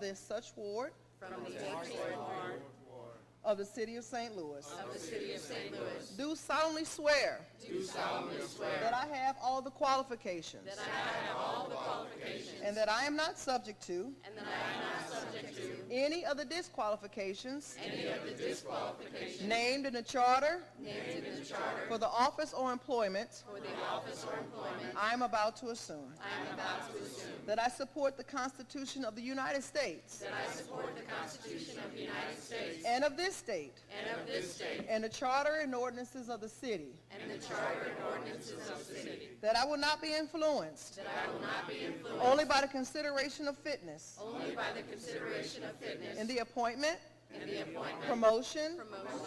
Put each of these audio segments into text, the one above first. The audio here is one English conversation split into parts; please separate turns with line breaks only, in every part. the such ward. From the Of the city of St. Louis. Of the city of St. Louis. Do solemnly swear. Do solemnly swear. That I have all the qualifications. That I have all the qualifications. And that I am not subject to. And that I am not subject to. Any of the disqualifications. Any of the disqualifications. Named in the charter. Named in the charter. For the office or employment. For the office or employment. I am about to assume. That I support the Constitution of the United States. That I support the Constitution of the United States. And of this state. And of this state. And the Charter and ordinances of the city. And the Charter and ordinances of the city. That I will not be influenced. That I will not be influenced. Only by the consideration of fitness. Only by the consideration of fitness. In the appointment. In the appointment. Promotion.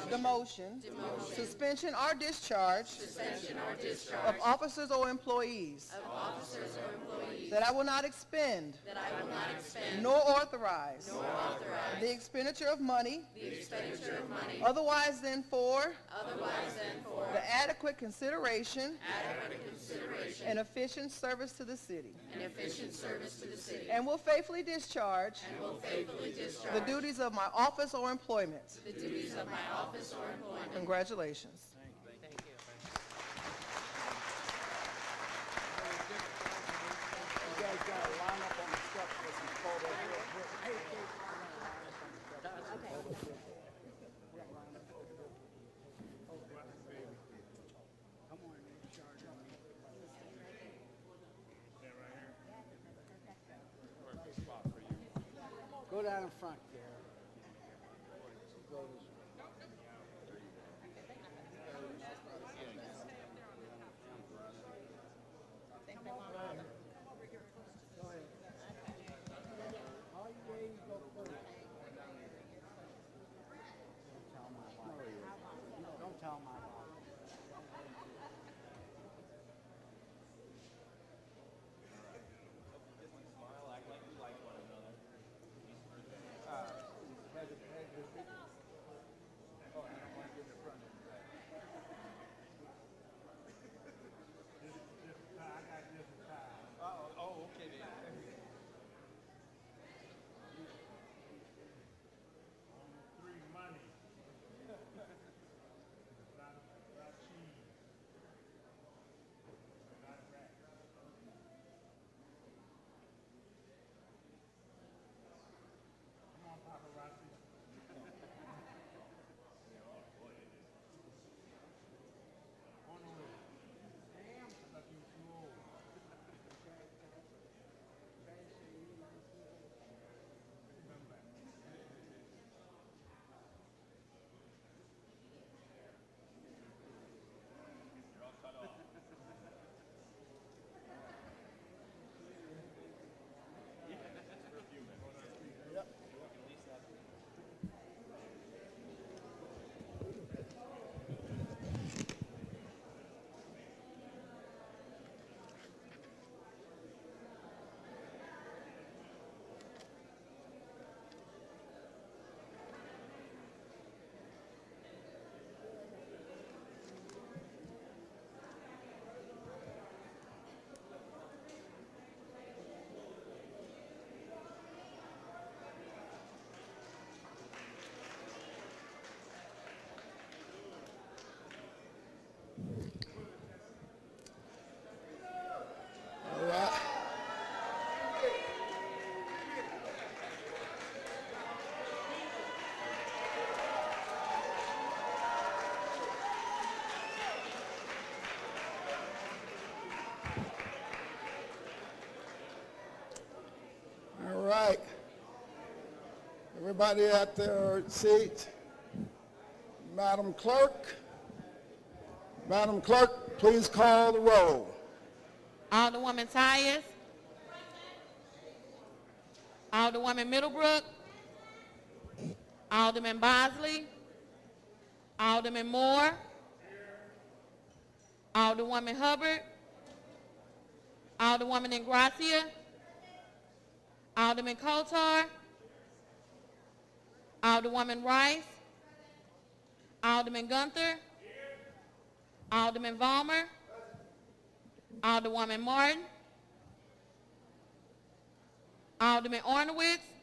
Promotion. Demotion. Demotion. Suspension or discharge. Suspension or discharge. Of officers or employees. That I will not expend. That I will not expend. Nor authorize. Nor authorize. The expenditure of money. The expenditure of money. Otherwise than for. Otherwise than for. The adequate consideration. Adequate consideration. And efficient service to the city. And efficient service to the city. And will faithfully discharge. And will faithfully discharge. The duties of my office or employment. The duties of my office or employment. Congratulations.
You guys gotta line up on the steps with some photos. real quick. Hey, hey, line up on the steps. Go down in front there. Go this way. All you ladies go first. Don't tell my wife. No, don't tell my wife.
three money. Lot of, lot of cheese. Lot of rat. Come on, paparazzi. On the way. I thought you were too old.
All right. Everybody at their seats. Madam Clerk, Madam Clerk, please call the roll.
Alderwoman Tyus. Alderwoman Middlebrook. Alderman Bosley. Alderman Moore. Alderwoman Hubbard. Alderwoman Ingracia. Alderman Kotar. Alderwoman Rice. Alderman Gunther. Alderman Vollmer. Alderwoman Martin. Alderman Ornowitz.